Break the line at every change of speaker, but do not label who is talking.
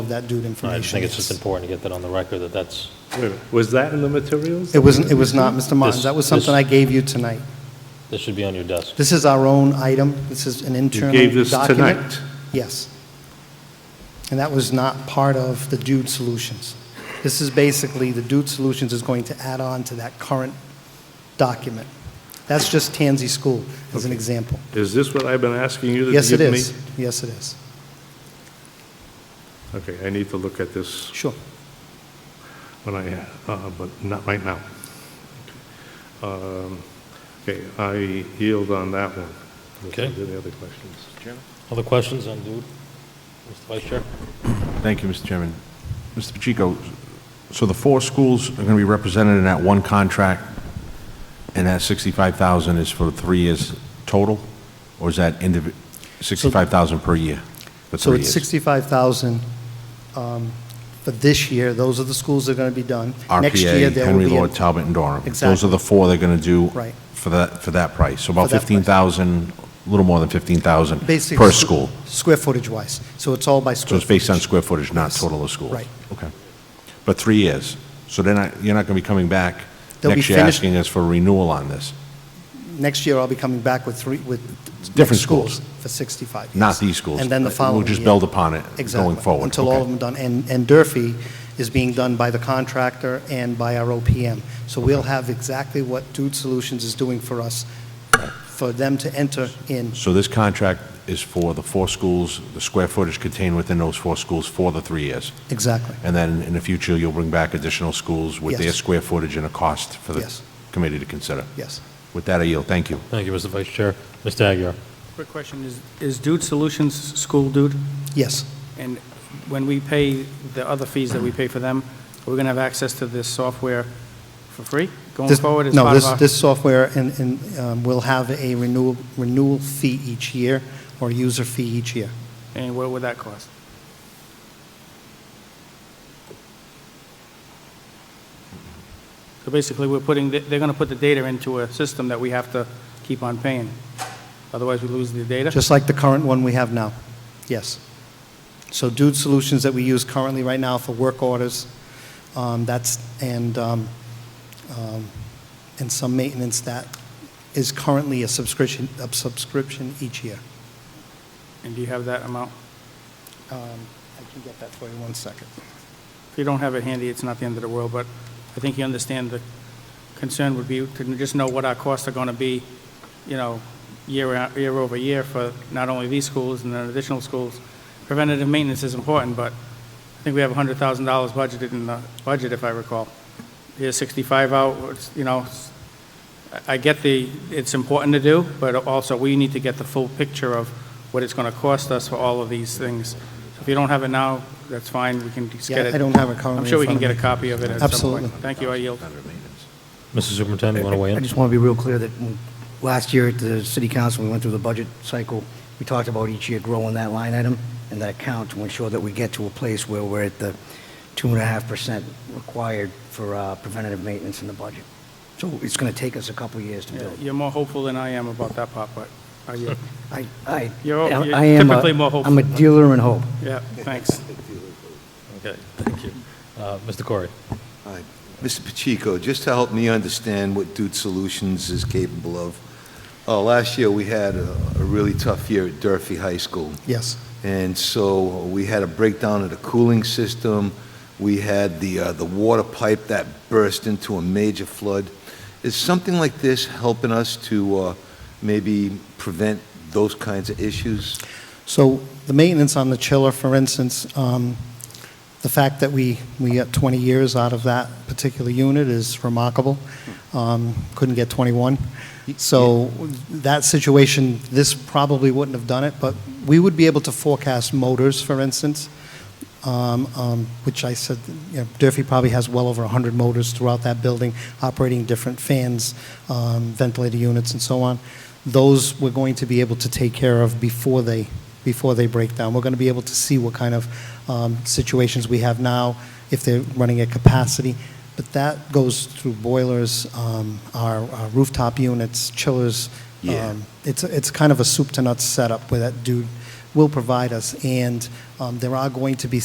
that dude
I
information.
think it's just
yes.
important to get that on the record, that that's,
Wait a minute, Was that in the materials?
It wasn't, it was not, Mr. Martins.
This-
That was something
this-
I gave you tonight.
that should be on your desk.
This is our own item. This is an internal
You
document.
gave this tonight.
Yes. And that was not part of the Dude Solutions. This is basically, the Dude Solutions is going to add on to that current document. That's just Tansy School, as an example.
Is this what I've been asking you to give me?
Yes, it is. Yes, it is.
Okay, I need to look at this
Sure.
when I, uh, but not right now. Um, Okay, I yield on that one.
Okay.
Any other questions?
Other questions on dude? Mr. Vice Chair?
Thank you, Mr. Chairman. Mr. Pacheco, so the four schools are going to be represented in that one contract, and that 65,000 is for three years total? Or is that indivi, 65,000 per year for
So
three
it's
years?
65,000 um, for this year. Those are the schools that are going to be done. Next year,
RPA,
there will
Henry
be a-
Lord, Talbot, and Durham. Those
Exactly.
are the four they're going to do
Right.
for that, for that price. So
For
about
that price.
15,000, a little more than 15,000
Basically,
per
squ-
school.
Square footage wise. So it's all by
So
square.
it's based on
footage.
square footage, not
Yes.
total of schools?
Right.
Okay. But three years. So then I- you're not going to be coming back
They'll be
next year
finished-
asking us for renewal on this?
Next year, I'll be coming back with three, with.
Different
next
schools.
For 65. yes.
Not these schools.
And then the
We'll
following year.
just build upon it going
Exactly,
forward.
Until all
Okay.
of them done. And, and Durfee is being done by the contractor and by our OPM. So we'll have exactly what Dude Solutions is doing for us, for them to enter in.
So this contract is for the four schools, the square footage contained within those four schools for the three years?
Exactly.
And then in the future, you'll bring back additional schools with their
Yes.
square footage and a cost for the
Yes.
committee to consider?
Yes.
With that, I yield. Thank you.
Thank you, Mr. Vice Chair. Mr. Aguirre?
Quick question, is, is Dude Solutions school dude?
Yes.
And when we pay the other fees that we pay for them, we're going to have access to this software for free going
This-
forward as
No,
part of
this,
our?
this software and, and um, will have a renewal, renewal fee each year or user fee each year.
And what would that cost? So basically, we're putting, the- they're going to put the data into a system that we have to keep on paying. Otherwise, we lose the data?
Just like the current one we have now, yes. So Dude Solutions that we use currently right now for work orders, um, that's, and, um, um, and some maintenance, that is currently a subscription, a subscription each year.
And do you have that amount?
Um, I can get that for you, one second.
If you don't have it handy, it's not the end of the world, but I think you understand the concern would be to just know what our costs are going to be, you know, year, out- year over year for not only these schools and then additional schools. Preventative maintenance is important, but I think we have $100,000 budgeted in the budget, if I recall. Here's 65 out, it's, you know, it's- I I get the, it's important to do, but also we need to get the full picture of what it's going to cost us for all of these things. If you don't have it now, that's fine, we can just
Yeah,
get it.
I don't have it currently
I'm sure we
in front
can get
of
a
me.
copy of it at some point.
Absolutely.
Thank you, I yield.
Mr. Superintendent, you want to weigh
I
in?
just want to be real clear that when- last year at the city council, we went through the budget cycle, we talked about each year growing that line item and that account to ensure that we get to a place where we're at the 2.5% required for uh, preventative maintenance in the budget. So it's going to take us a couple of years to
Yeah,
build.
You're more hopeful than I am about that part, but I yield.
I, I,
You're- you're
I am a-
typically more hopeful.
I'm a dealer in hope.
Yeah, thanks.
Okay, thank you. Uh, Mr. Corey?
Hi. Mr. Pacheco, just to help me understand what Dude Solutions is capable of, uh, last year, we had a a really tough year at Durfee High School.
Yes,
And so we had a breakdown of the cooling system. We had the, uh, the water pipe that burst into a major flood. Is something like this helping us to uh, maybe prevent those kinds of issues?
so the maintenance on the chiller, for instance, um, the fact that we, we got 20 years out of that particular unit is remarkable. Um, Couldn't get 21. So that situation, this probably wouldn't have done it, but we would be able to forecast motors, for instance, um, um, which I said, you know, Durfee probably has well over 100 motors throughout that building, operating different fans, um, ventilator units, and so on. Those we're going to be able to take care of before they, before they break down. We're going to be able to see what kind of um, situations we have now, if they're running at capacity. But that goes through boilers, um, our our rooftop units, chillers.
Yeah.
Um, It's, it's kind of a soup to nuts setup where that dude will provide us. And um, there are going to be